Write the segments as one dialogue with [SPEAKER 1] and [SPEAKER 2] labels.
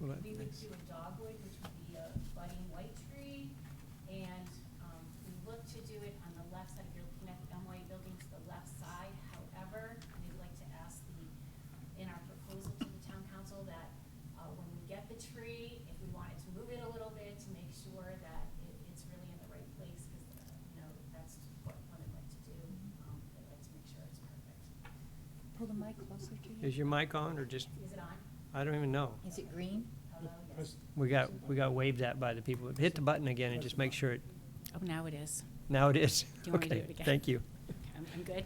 [SPEAKER 1] Well, that-
[SPEAKER 2] We would
[SPEAKER 1] nice.
[SPEAKER 2] do a dogwood, which would be a budding white tree, and, um, we look to do it on the left side, if you're looking at the NY building to the left side, however, we'd like to ask the, in our proposal to the town council that, uh, when we get the tree, if we wanted to move it a little bit to make sure that it, it's really in the right place, cause, uh, you know, that's what one would like to do,
[SPEAKER 1] Mm-hmm.
[SPEAKER 2] um, they like to make sure it's perfect.
[SPEAKER 3] Pull the mic closer to you.
[SPEAKER 1] Is your mic on or just,
[SPEAKER 2] Is it on?
[SPEAKER 1] I don't even know.
[SPEAKER 3] Is it green?
[SPEAKER 2] Hello, yes.
[SPEAKER 4] Press-
[SPEAKER 1] We got, we got waved at by the people. Hit the button again and just make sure it,
[SPEAKER 5] Oh, now it is.
[SPEAKER 1] now it is.
[SPEAKER 5] Do you want me to do it
[SPEAKER 1] Okay,
[SPEAKER 5] again?
[SPEAKER 1] Thank you.
[SPEAKER 5] I'm, I'm good.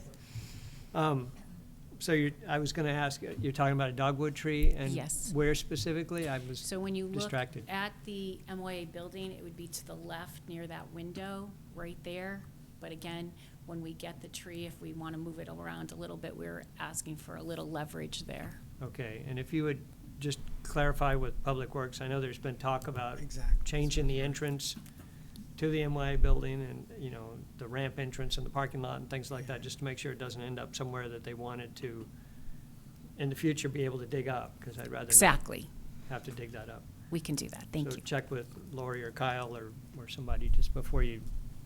[SPEAKER 1] Um, So you're, I was going to ask, you're talking about a dogwood tree?
[SPEAKER 5] Yes.
[SPEAKER 1] And where specifically? I was
[SPEAKER 5] So when you look
[SPEAKER 1] distracted.
[SPEAKER 5] at the MOA building, it would be to the left near that window, right there. But again, when we get the tree, if we want to move it around a little bit, we're asking for a little leverage there.
[SPEAKER 1] Okay, and if you would just clarify with Public Works, I know there's been talk about
[SPEAKER 4] Exactly.
[SPEAKER 1] changing the entrance to the MYA building and, you know, the ramp entrance and the parking lot and things like that, just to make sure it doesn't end up somewhere that they wanted to, in the future, be able to dig up, because I'd rather not
[SPEAKER 5] Exactly.
[SPEAKER 1] have to dig that up.
[SPEAKER 5] We can do that. Thank
[SPEAKER 1] So
[SPEAKER 5] you.
[SPEAKER 1] check with Lori or Kyle or, or somebody just before you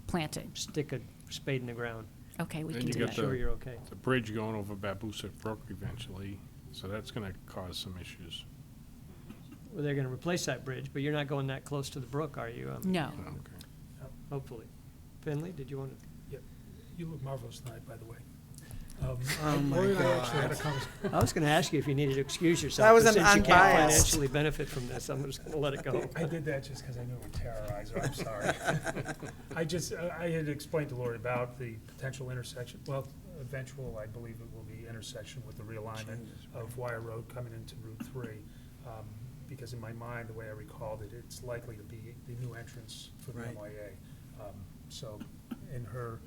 [SPEAKER 5] Planted.
[SPEAKER 1] stick a spade in the ground.
[SPEAKER 5] Okay, we
[SPEAKER 6] Then
[SPEAKER 5] can
[SPEAKER 6] you
[SPEAKER 5] do
[SPEAKER 6] got
[SPEAKER 1] Make
[SPEAKER 5] that.
[SPEAKER 1] sure you're okay.
[SPEAKER 6] the bridge going over Babusak Brook eventually, so that's gonna cause some issues.
[SPEAKER 1] Well, they're gonna replace that bridge, but you're not going that close to the brook, are you? Um, I mean,
[SPEAKER 5] No.
[SPEAKER 6] Okay.
[SPEAKER 1] Hopefully. Finley, did you want to?
[SPEAKER 4] You look marvelous tonight, by the way. Um,
[SPEAKER 1] Oh my
[SPEAKER 4] Lori and I actually had a conversation.
[SPEAKER 1] I was gonna ask you if you needed to excuse yourself.
[SPEAKER 7] That was
[SPEAKER 1] but
[SPEAKER 7] an
[SPEAKER 1] Since you can't
[SPEAKER 7] unbiased.
[SPEAKER 1] financially benefit from this, I'm just gonna let it go.
[SPEAKER 4] I did that just because I knew it would terrorize her, I'm sorry. I just, I I had explained to Lori about the potential intersection, well, eventual, I believe it will be intersection with the realignment of Wire Road coming into Route Three. um, Because in my mind, the way I recalled it, it's likely to be the new entrance for the
[SPEAKER 7] Right.
[SPEAKER 4] MYA. Um, So, in her,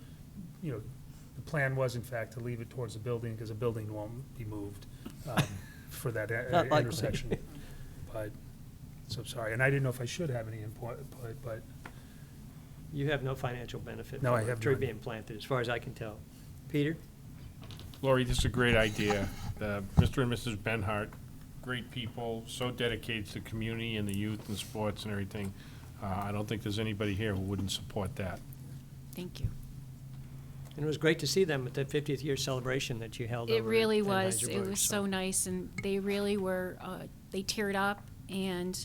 [SPEAKER 4] you know, the plan was in fact to leave it towards the building, because the building won't be moved um, for that uh,
[SPEAKER 1] Not likely.
[SPEAKER 4] intersection. But, so sorry, and I didn't know if I should have any input, but- but
[SPEAKER 1] You have no financial benefit.
[SPEAKER 4] No, I
[SPEAKER 1] from a
[SPEAKER 4] have
[SPEAKER 1] Tree
[SPEAKER 4] none.
[SPEAKER 1] being planted, as far as I can tell. Peter?
[SPEAKER 6] Lori, this is a great idea. Uh, Mr. and Mrs. Benhart, great people, so dedicated to the community and the youth and sports and everything. Uh, I don't think there's anybody here who wouldn't support that.
[SPEAKER 5] Thank you.
[SPEAKER 1] And it was great to see them at that fiftieth year celebration that you held over
[SPEAKER 5] It
[SPEAKER 1] at
[SPEAKER 5] really was. It
[SPEAKER 1] Anheuser-Busch,
[SPEAKER 5] was so nice, and they really were, uh, they teared up, and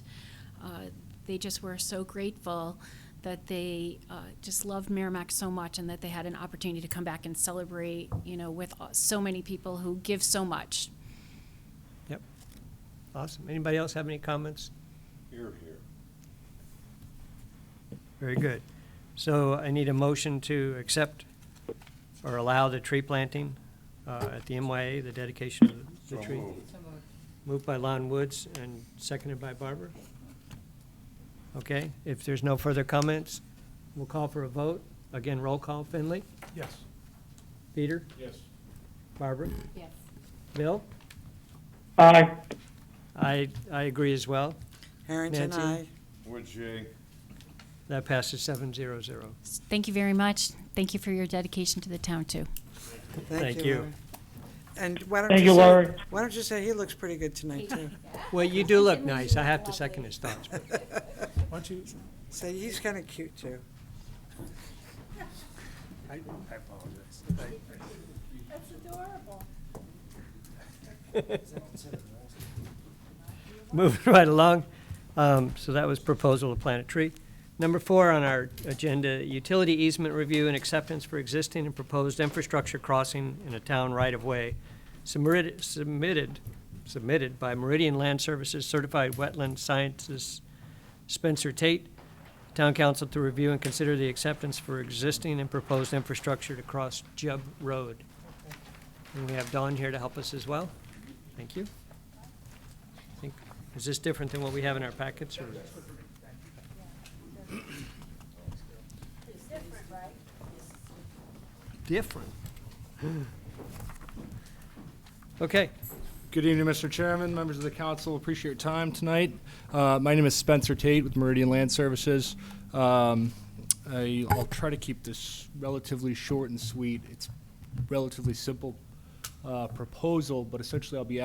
[SPEAKER 5] uh, they just were so grateful that they uh, just loved Merrimack so much and that they had an opportunity to come back and celebrate, you know, with uh, so many people who give so much.
[SPEAKER 1] Yep. Awesome. Anybody else have any comments? Here, here. Very good. So I need a motion to accept or allow the tree planting uh, at the MYA, the dedication of the tree. Moved by Lon Woods and seconded by Barbara. Okay, if there's no further comments, we'll call for a vote. Again, roll call. Finley?
[SPEAKER 4] Yes.
[SPEAKER 1] Peter?
[SPEAKER 6] Yes.
[SPEAKER 1] Barbara?
[SPEAKER 5] Yes.
[SPEAKER 1] Bill?
[SPEAKER 4] Aye.
[SPEAKER 1] I, I agree as well.
[SPEAKER 7] Harrington,
[SPEAKER 1] Nancy?
[SPEAKER 7] aye.
[SPEAKER 8] Would you?
[SPEAKER 1] That passes seven zero zero.
[SPEAKER 5] Thank you very much. Thank you for your dedication to the town, too.
[SPEAKER 1] Thank you.
[SPEAKER 7] Laura. And why don't you say?
[SPEAKER 9] Thank you, Laura.
[SPEAKER 7] Why don't you say, he looks pretty good tonight, too.
[SPEAKER 1] Well, you do look nice. I have to second his thoughts. but-
[SPEAKER 4] Why don't you,
[SPEAKER 7] Say, he's kind of cute, too.
[SPEAKER 4] I I apologize.
[SPEAKER 2] That's adorable.
[SPEAKER 1] Moving right along. Um, So that was proposal to plant a tree. Number four on our agenda, utility easement review and acceptance for existing and proposed infrastructure crossing in a town right-of-way submitted, submitted, submitted by Meridian Land Services Certified Wetland Sciences Spencer Tate, Town Council to review and consider the acceptance for existing and proposed infrastructure to cross Jubb Road. And we have Dawn here to help us as well. Thank you. Think- Is this different than what we have in our packets, or? Different. Okay,
[SPEAKER 9] Good evening, Mr. Chairman, members of the council. Appreciate your time tonight. Uh, My name is Spencer Tate with Meridian Land Services. Um, I- I'll try to keep this relatively short and sweet. It's relatively simple uh, proposal, but essentially I'll be